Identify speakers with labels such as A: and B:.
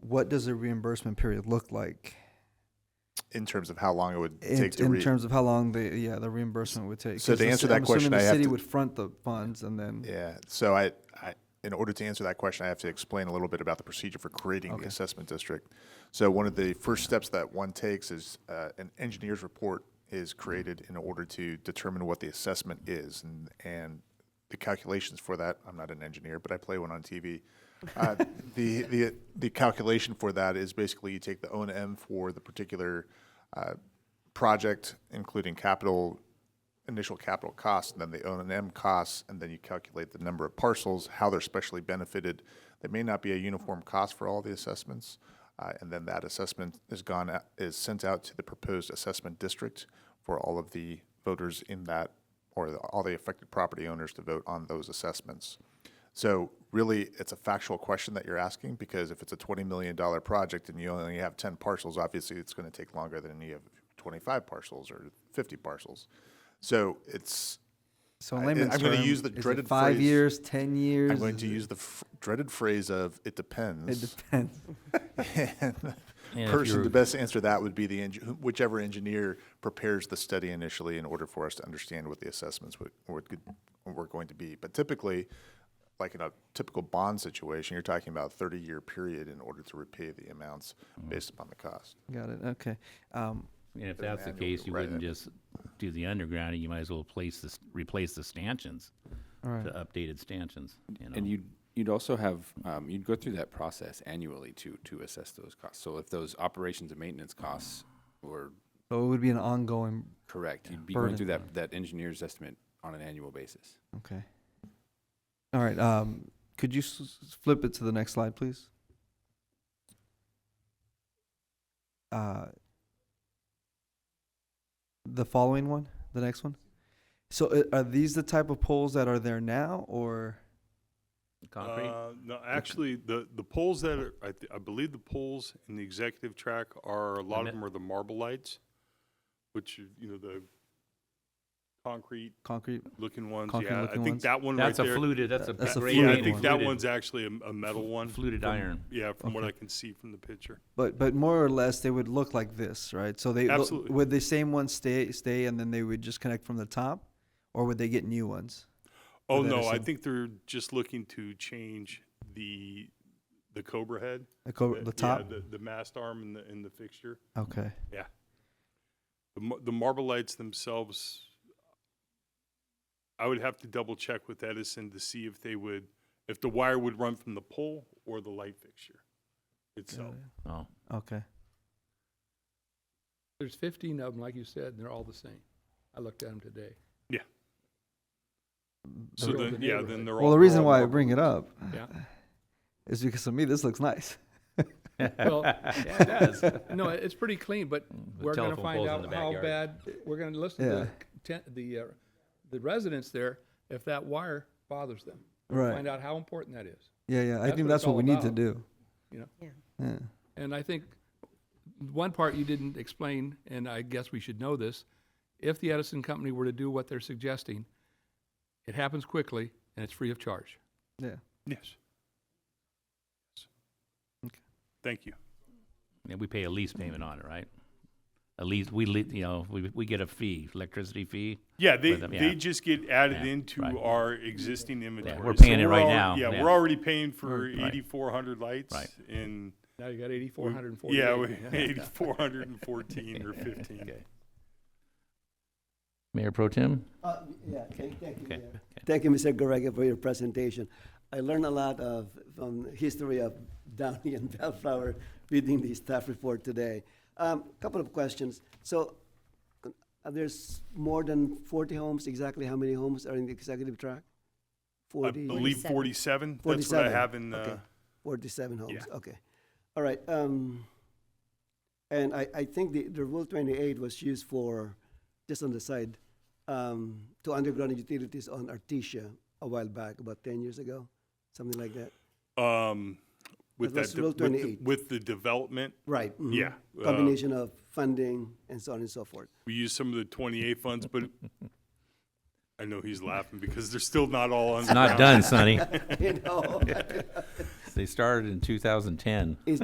A: what does a reimbursement period look like
B: in terms of how long it would
A: in,
B: take to
A: in
B: read.
A: terms of how long the yeah the reimbursement would take?
B: So
A: 'Cause
B: to
A: the
B: answer
A: ci-
B: that
A: I'm
B: question,
A: assuming the
B: I have
A: city
B: to-
A: would front the funds and then
B: Yeah, so I, I, in order to answer that question, I have to explain a little bit about the procedure for creating the assessment district. So one of the first steps that one takes is uh, an engineer's report is created in order to determine what the assessment is and, and the calculations for that. I'm not an engineer, but I play one on TV. Uh, the the the calculation for that is basically you take the O and M for the particular uh, project, including capital initial capital costs, and then the O and M costs, and then you calculate the number of parcels, how they're specially benefited. There may not be a uniform cost for all the assessments, uh, and then that assessment is gone out, is sent out to the proposed assessment district for all of the voters in that, or the, all the affected property owners to vote on those assessments. So really, it's a factual question that you're asking because if it's a twenty million dollar project and you only have ten parcels, obviously it's going to take longer than you have twenty-five parcels or fifty parcels. So it's
A: so in
B: I-
A: layman's
B: I'm gonna
A: term,
B: use the
A: is it
B: dreaded
A: five
B: phrase-
A: years, ten years.
B: I'm going
A: Is
B: to
A: it-
B: use the f- dreaded phrase of "it
A: It
B: depends."
A: depends.
B: and the
C: And if
B: person
C: you're-
B: to best answer that would be the eng- who- whichever engineer prepares the study initially in order for us to understand what the assessments would, would could, were going to be. But typically, like in a typical bond situation, you're talking about a 30-year period in order to repay the amounts
C: Mm-hmm.
B: based upon the cost.
A: Got it. Okay. Um,
C: And if that's the
B: annual
C: case, you
B: right.
C: wouldn't just do the undergrounding, you might as well place this, replace the stanchions
A: all right.
C: to updated stanchions, you know?
D: And you'd, you'd also have, um, you'd go through that process annually to, to assess those costs. So if those operations and maintenance costs were
A: So it would be an ongoing.
D: correct, you'd be
A: Burden.
D: going through that, that engineer's estimate on an annual basis.
A: Okay. All right. Um, could you s- s- flip it to the next slide, please? Uh, the following one, the next one. So uh, are these the type of poles that are there now, or
C: Concrete?
E: Uh, No, actually, the, the poles that are, I, th- I believe the poles in the executive track are, a lot of
C: met-
E: them are the marble lights, which, are, you know, the concrete-looking
A: concrete?
E: ones. Yeah, I
A: Concrete-looking
E: think
A: ones?
E: that one right
C: That's a
E: there.
C: fluted, that's a.
A: That's a
C: great
E: Yeah, I
A: fluted
E: think
A: one.
E: that
C: fluted-
E: one's actually a- a metal one.
C: Fluted
E: from-
C: iron.
E: Yeah, from what
A: Okay.
E: I can see from the picture.
A: But but more or less, they would look like this, right? So they look-
E: Absolutely.
A: would the same ones stay stay, and then they would just connect from the top, or would they get new ones?
E: Oh,
A: that
E: no,
A: is
E: I
A: some-
E: think they're just looking to change the, the Cobra head.
A: Like over Oh, the
E: Uh, yeah,
A: top.
E: The, the mast arm and the, and the fixture.
A: okay.
E: The, mar- the marble lights themselves, I would have to double check with Edison to see if they would, if the wire would run from the pole or the light fixture itself.
C: Oh,
A: Okay.
F: There's 15 of them, like you said, and they're all the same. I looked at them today.
A: The-
E: So then,
F: the
E: yeah, then
F: neighborhood.
E: they're all.
A: Well, the
E: they're
A: reason
E: all
A: why I
E: marble
A: bring it
E: lights.
A: up
F: Yeah.
A: is because to me this looks nice.
F: Well, yeah, it does. No, it- it's pretty clean, but
C: the
F: we're going to
C: telephone
F: find
C: poles in
F: out
C: the
F: how
C: backyard.
F: bad, we're going to listen
A: Yeah.
F: to the ten- the, uh, the residents there if that wire bothers them.
A: Right.
F: Find out how important that is,
A: Yeah, yeah. I
F: That's
A: think
F: what
A: that's
F: it's
A: what
F: all
A: we need to
F: about.
A: do.
F: you know?
A: Yeah.
F: And I think one part you didn't explain, and I guess we should know this, if the Edison company were to do what they're suggesting, it happens quickly and it's free of charge.
A: Yeah.
E: Yes.
A: Okay.
E: Thank you.
C: and we pay a lease payment on it, right? A lease, we, le- you know, we, we get a fee, electricity fee.
E: Yeah, they,
C: With them, yeah.
E: they just get added
C: Yeah,
E: into
C: right.
E: our existing inventory.
C: we're
E: So
C: paying it right
E: al-
C: now,
E: Yeah,
C: yeah.
E: we're already paying for
C: Right.
E: eighty-four hundred lights
C: Right.
E: and.
F: Now you got 8,440.
E: Yeah, we- eighty-four hundred and fourteen or fifteen.
C: Mayor Pro Tem?
G: Uh, Yeah, thank thank you.
C: Okay,
G: yeah.
C: okay.
G: Thank you, Mr. Garega, for your presentation. I learned a lot of, from history of Downey and Bellflower reading the staff report today. Um, Couple of questions. So uh, there's more than 40 homes, exactly how many homes are in the executive track?
E: I
G: 40?
E: believe forty-seven, that's what I
G: 47,
E: have in,
G: okay.
E: uh,
G: 47 homes,
E: Yeah.
G: okay. All right, um, and I, I think the, the Rule 28 was used for, just on the side, um, to underground utilities on Artesia a while back, about 10 years ago, something like that.
E: um, with
G: That's
E: that, de-
G: Rule
E: with the,
G: 28.
E: with the development,
G: Right. mhm.
E: Yeah, uh,
G: Combination of funding and so on and so forth.
E: we use some of the twenty-eight funds, but I know he's laughing because they're still not all on.
C: Not done, Sonny.
G: You know?
C: They started in 2010.